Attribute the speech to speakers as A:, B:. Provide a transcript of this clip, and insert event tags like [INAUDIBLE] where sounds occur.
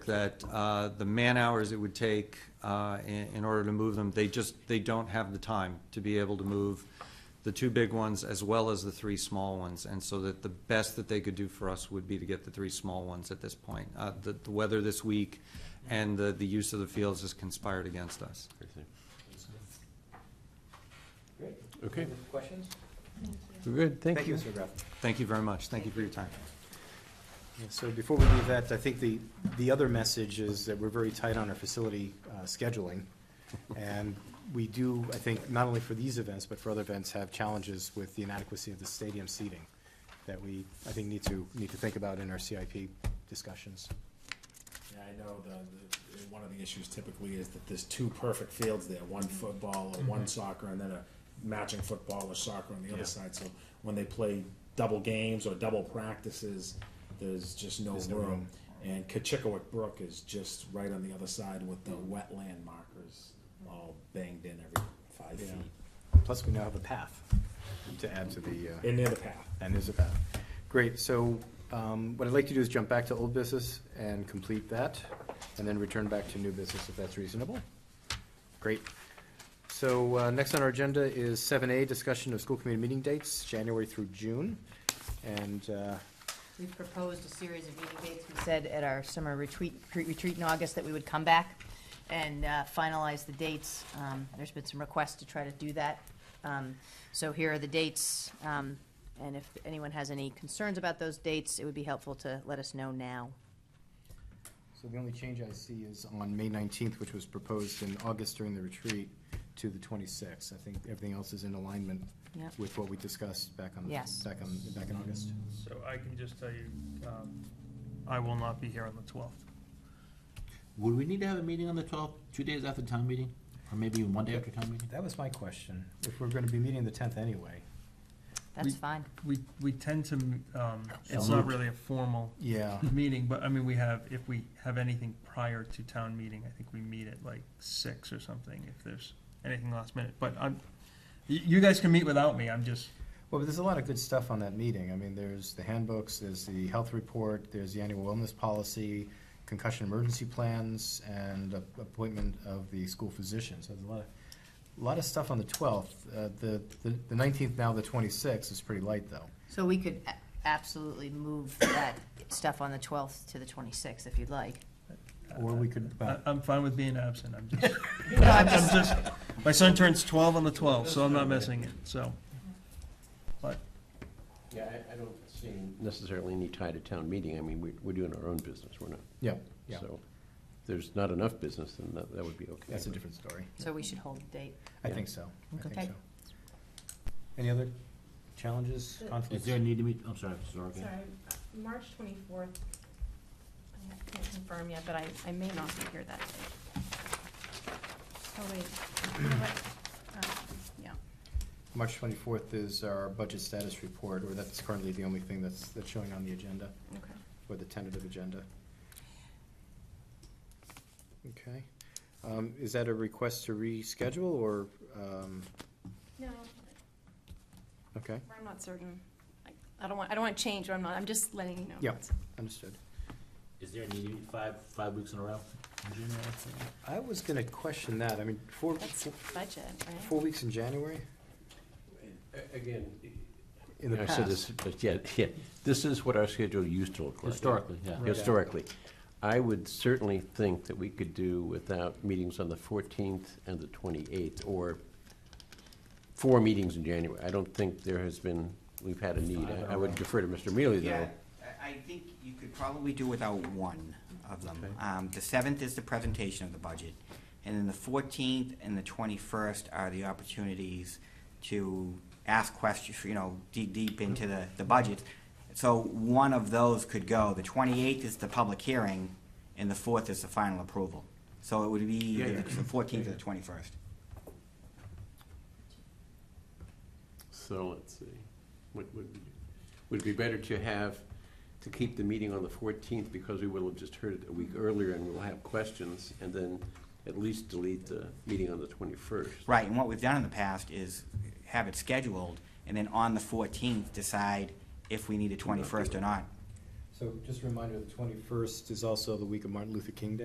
A: that uh, the man-hours it would take uh, in in order to move them, they just, they don't have the time to be able to move the two big ones as well as the three small ones. And so that the best that they could do for us would be to get the three small ones at this point. Uh, The the weather this week and the the use of the fields has conspired against us.
B: Great.
C: Okay,
B: Any Questions?
C: we're good, thank you.
B: Mr. Graff.
A: Thank you very much. Thank you for your time.
D: Yeah, So before we leave that, I think the, the other message is that we're very tight on our facility uh, scheduling. And we do, I think, not only for these events, but for other events, have challenges with the inadequacy of the stadium seating that we, I think, need to, need to think about in our CIP discussions.
E: Yeah, I know the, the, one of the issues typically is that there's two perfect fields there, one
D: Mm-hmm.
E: football or one soccer and then a matching football or soccer on the
D: Yeah.
E: other side. So when they play double games or double practices, there's just no
D: There's no room.
E: room. And Kachikowick Brook is just right on the other side with the
D: Mm-hmm.
E: wetland markers all banged in every five
D: Yeah.
E: feet.
D: Plus, we now have a path to add to the, uh,
E: And near the path.
D: and there's a path. Great, so um, what I'd like to do is jump back to old business and complete that, and then return back to new business if that's reasonable. Great. So uh, next on our agenda is seven A, discussion of school committee meeting dates, January through June. And uh,
F: We've proposed a series of meeting dates. We said at our summer retreat, retreat in August that we would come back and uh, finalize the dates. Um, There's been some requests to try to do that. Um, So here are the dates, um, and if anyone has any concerns about those dates, it would be helpful to let us know now.
D: so the only change I see is on May nineteenth, which was proposed in August during the retreat, to the twenty-sixth. I think everything else is in alignment
F: Yep.
D: with what we discussed back on,
F: Yes.
D: back on, back in August.
G: So I can just tell you, um, I will not be here on the 12th.
C: Would we need to have a meeting on the twelfth, two days after town meeting, or maybe even one day after town meeting?
D: That was my question. If we're going to be meeting the tenth anyway.
F: That's
G: We-
F: fine.
G: We, we tend to, um, it's
C: So
G: not
C: moved.
G: really a formal
D: Yeah.
G: meeting, but I mean, we have, if we have anything prior to town meeting, I think we meet at like six or something, if there's anything last minute. But I'm, you, you guys can meet without me, I'm just,
D: Well, but there's a lot of good stuff on that meeting. I mean, there's the handbooks, there's the health report, there's the annual wellness policy, concussion emergency plans, and a- appointment of the school physician. So there's a lot of, a lot of stuff on the twelfth. Uh, The, the- the nineteenth, now the twenty-sixth is pretty light, though.
F: So we could a- absolutely move that stuff on the 12th to the 26th if you'd like.
D: Or we could, uh,
G: I,
D: well,
G: I'm fine with being absent, I'm just,
F: No, I'm
G: I'm
F: just-
G: just, my son turns 12 on the 12th, so I'm not missing it, so. But
H: Yeah, I, I don't see necessarily any tie to town meeting. I mean, we're, we're doing our own business, we're not.
D: yeah, yeah,
H: So if there's not enough business, then that, that would be okay.
D: that's a
H: but-
D: different story.
F: So we should hold the date.
D: I
H: Yeah.
D: think so. I think
F: Okay.
D: so. Any other challenges, conflicts?
C: Is there a need to meet, I'm sorry, Mrs. Sorry.
I: Sorry, March twenty-fourth. I can't confirm yet, but I, I may not be here that day. Oh, wait, you know what? Uh, yeah.
D: March 24th is our budget status report, or that's currently the only thing that's, that's showing on the agenda,
I: Okay.
D: or the tentative agenda. Okay. Um, Is that a request to reschedule, or, um,
I: No,
D: okay,
I: I'm not certain. I- I don't want, I don't want to change, what I'm not, I'm just letting you know.
D: Yeah. understood.
C: Is there a need to meet five, five weeks in a row? in June or something?
D: I was gonna question that, I mean, four,
I: That's budget, right?
D: four weeks in January?
H: A- Again.
D: In the
H: I said this,
D: past?
H: but yeah, [LAUGHS] yeah, this is what our schedule used to look like.
C: Historically, yeah.
D: Right.
H: Historically. I would certainly think that we could do without meetings on the fourteenth and the twenty-eighth, or four meetings in January. I don't think there has been, we've had a need. I- I would defer to Mr. Mealy,
J: Yeah,
H: though.
J: I- I think you could probably do without one of them. Um, The seventh is the presentation of the budget, and then the fourteenth and the twenty-first are the opportunities to ask questions, you know, deep, deep into the, the budget. So one of those could go. The twenty-eighth is the public hearing, and the fourth is the final approval. So it would be
H: Yeah, yeah.
J: the fourteenth or the twenty-first.
H: So let's see, what would, be- would it be better to have, to keep the meeting on the fourteenth because we will have just heard it a week earlier and we'll have questions and then at least delete the meeting on the twenty-first?
J: Right, and what we've done in the past is have it scheduled, and then on the fourteenth, decide if we need a twenty-first or not.
D: So just a reminder, the twenty-first is also the week of Martin Luther King Day.